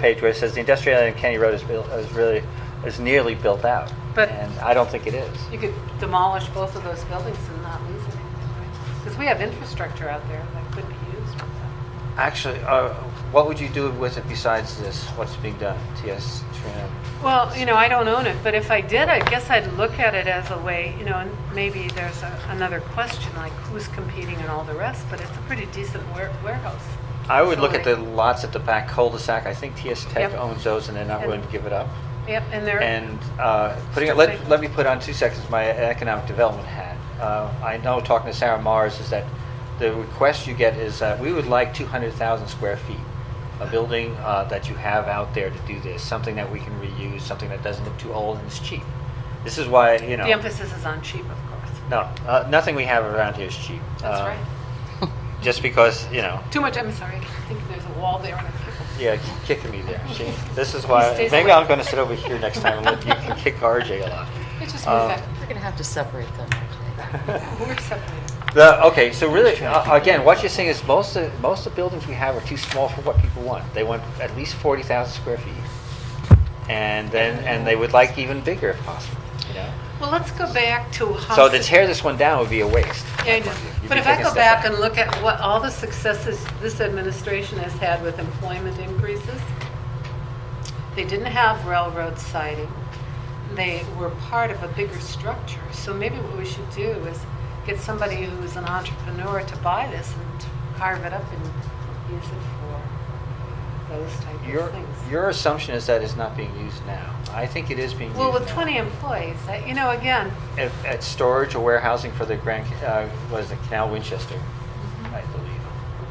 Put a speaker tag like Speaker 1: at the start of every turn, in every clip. Speaker 1: page where it says the industrial area in Kenny Road is built, is really, is nearly built out.
Speaker 2: But-
Speaker 1: And I don't think it is.
Speaker 2: You could demolish both of those buildings and not lose anything, Because we have infrastructure out there that could be used. for that.
Speaker 1: Actually, uh, what would you do with it besides this? What's being done? TS, Trina?
Speaker 2: Well, you know, I don't own it, but if I did, I guess I'd look at it as a way, you know, and maybe there's a- another question, like who's competing and all the rest, but it's a pretty decent ware- warehouse.
Speaker 1: I would look at the
Speaker 2: facility.
Speaker 1: lots at the back cul-de-sac. I think TS Tech
Speaker 2: Yep.
Speaker 1: owns those and they're not willing to give it up.
Speaker 2: Yep, and there.
Speaker 1: And uh, putting, it- let, let me put on two seconds my economic development hat. Uh, I know, talking to Sarah Mars, is that the request you get is that we would like 200,000 square feet, a building uh, that you have out there to do this, something that we can reuse, something that doesn't look too old and is cheap. This is why, you know.
Speaker 2: The emphasis is on cheap, of course.
Speaker 1: No, uh, nothing we have around here is cheap.
Speaker 2: That's
Speaker 1: Uh,
Speaker 2: right.
Speaker 1: Just because, you know,
Speaker 2: Too much, I'm sorry, I think there's a wall there and I kicked
Speaker 1: yeah, keep kicking me there. See, this is
Speaker 2: He
Speaker 1: why,
Speaker 2: stays
Speaker 1: maybe
Speaker 2: away.
Speaker 1: I'm going to sit over here next time and let you can kick RJ a lot.
Speaker 2: It just
Speaker 1: Um,
Speaker 2: moves back.
Speaker 3: We're going to have to separate them.
Speaker 2: We're separated.
Speaker 1: The, okay, so really, uh, again, what you're saying is most of, most of the buildings we have are too small for what people want. They want at least forty thousand square feet, and then and they would like even bigger if possible. You know,
Speaker 2: Well, let's go back to how.
Speaker 1: so to tear this one down would be a waste.
Speaker 2: Yeah, I know.
Speaker 1: You'd
Speaker 2: But
Speaker 1: be
Speaker 2: if I
Speaker 1: taking a
Speaker 2: go
Speaker 1: step
Speaker 2: back
Speaker 1: back.
Speaker 2: and look at what all the successes this administration has had with employment increases, they didn't have railroad siding. They were part of a bigger structure. So maybe what we should do is get somebody who's an entrepreneur to buy this and to carve it up and use it for those type
Speaker 1: Your
Speaker 2: of things.
Speaker 1: your assumption is that it's not being used now. I think it is being
Speaker 2: Well,
Speaker 1: used.
Speaker 2: with
Speaker 1: now.
Speaker 2: 20 employees, I- you know, again,
Speaker 1: at, at storage or warehousing for the Grand, uh, what is it, Canal Winchester, I believe.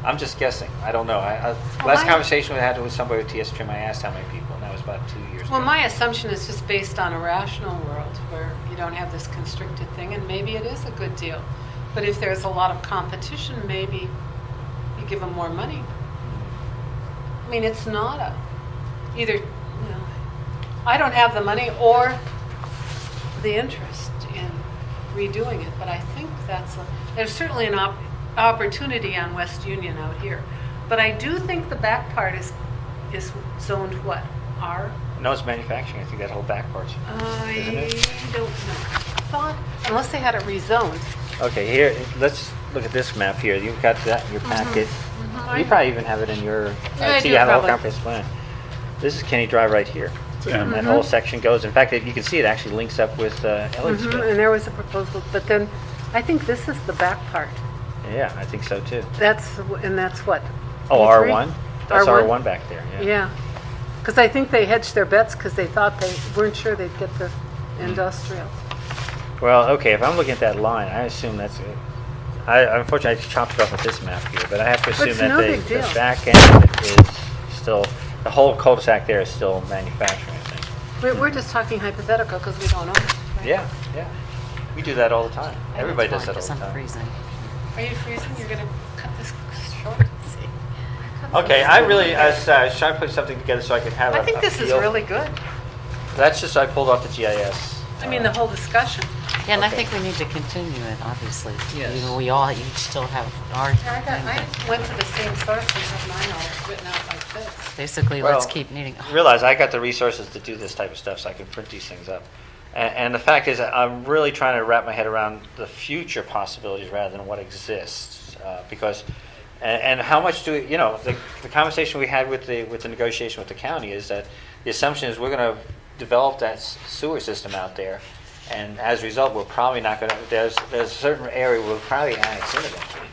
Speaker 1: I'm just guessing. I don't know. I, I,
Speaker 2: Well,
Speaker 1: last
Speaker 2: my-
Speaker 1: conversation we had with somebody with TS Trim, I asked how many people, and that was about two years
Speaker 2: Well,
Speaker 1: ago.
Speaker 2: my assumption is just based on a rational world where you don't have this constricted thing, and maybe it is a good deal. But if there's a lot of competition, maybe you give them more money. I mean, it's not a, either, you know, I don't have the money or the interest in redoing it, but I think that's, a there's certainly an op- opportunity on West Union out here. But I do think the back part is, is zoned what, R?
Speaker 1: no, it's manufacturing. I think that whole back part's. Isn't
Speaker 2: I
Speaker 1: it?
Speaker 2: don't know. Thought, unless they had it rezoned.
Speaker 1: Okay, here, let's look at this map here. You've got that in your packet. You probably even have it in your,
Speaker 2: Mm-hmm. Yeah,
Speaker 1: I
Speaker 2: I
Speaker 1: see
Speaker 2: do
Speaker 1: you have a whole
Speaker 2: probably. Mm-hmm.
Speaker 1: comprehensive plan. This is Kenny Drive right here. And that whole section goes, in fact, if you can see it actually links up with uh,
Speaker 2: Mhm,
Speaker 1: Elliottsville.
Speaker 2: And there was a proposal, but then, I think this is the back part.
Speaker 1: Yeah, I think so too.
Speaker 2: That's, w- and that's what?
Speaker 1: Oh,
Speaker 2: E3?
Speaker 1: R1? That's
Speaker 2: R1?
Speaker 1: R1 back there, yeah.
Speaker 2: Yeah. Because I think they hedged their bets because they thought they weren't sure they'd get the
Speaker 1: Mm-hmm.
Speaker 2: industrial.
Speaker 1: Well, okay, if I'm looking at that line, I assume that's it. I unfortunately I chopped it off with this map here, but I have to assume
Speaker 2: it's
Speaker 1: that
Speaker 2: no
Speaker 1: the,
Speaker 2: big
Speaker 1: the
Speaker 2: deal.
Speaker 1: back end of it is still the whole cul-de-sac there is still manufacturing. I think.
Speaker 2: We're, we're just talking hypothetical because we don't know. right?
Speaker 1: Yeah, yeah. We do that all the time. Everybody does that all the
Speaker 3: Because I'm
Speaker 1: time.
Speaker 3: freezing.
Speaker 2: Are you freezing? You're going to cut this short?
Speaker 1: Okay, I really I was, uh, I was trying to put something together so I could have.
Speaker 2: I
Speaker 1: a-
Speaker 2: think
Speaker 1: a
Speaker 2: this is
Speaker 1: feel.
Speaker 2: really good.
Speaker 1: That's just I pulled off the GIS.
Speaker 2: I mean, the whole discussion.
Speaker 3: Yeah, and I
Speaker 1: Okay.
Speaker 3: think we need to continue it, obviously.
Speaker 1: Yes.
Speaker 3: You know, we all, you still have our,
Speaker 2: I got, I went to the same source and had mine all written out like this.
Speaker 3: basically, let's
Speaker 1: Well,
Speaker 3: keep oh, meeting.
Speaker 1: realize I got the resources to do this type of stuff, so I can print these things up. And, and the fact is, I'm really trying to wrap my head around the future possibilities rather than what exists, uh, because. And, and how much do we, you know? The, the conversation we had with the with the negotiation with the county is that the assumption is we're going to develop that s- sewer system out there, and as a result, we're probably not going to. There's there's a certain area we'll probably annex in eventually,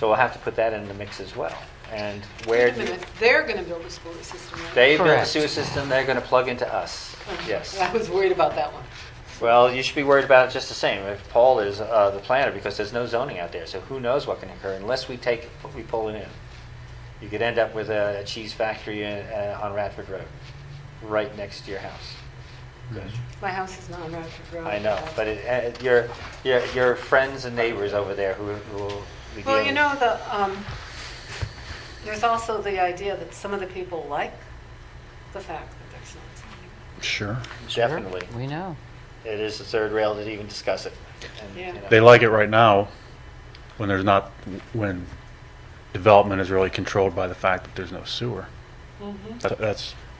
Speaker 1: so we'll have to put that in the mix as well. And where
Speaker 2: Wait a
Speaker 1: do
Speaker 2: minute, they're going to build a sewer system, right?
Speaker 1: they build a
Speaker 3: Correct.
Speaker 1: sewer system, they're going to plug into us. Yes.
Speaker 2: I was worried about that one.
Speaker 1: Well, you should be worried about it just the same. If Paul is uh, the planner, because there's no zoning out there, so who knows what can occur unless we take, we pull it in. You could end up with a cheese factory in- uh, on Radford Road, right next to your house.
Speaker 2: My house is not on Radford Road.
Speaker 1: I know, but it, uh, your, your, your friends and neighbors over there who who will be
Speaker 2: Well,
Speaker 1: dealing-
Speaker 2: you know, the, um, there's also the idea that some of the people like the fact that there's not zoning.
Speaker 4: Sure.
Speaker 3: Sure,
Speaker 1: Definitely.
Speaker 3: We know.
Speaker 1: It is the third rail to even discuss it. And, you
Speaker 2: Yeah.
Speaker 1: know.
Speaker 4: They like it right now when there's not, when development is really controlled by the fact that there's no sewer. That- That's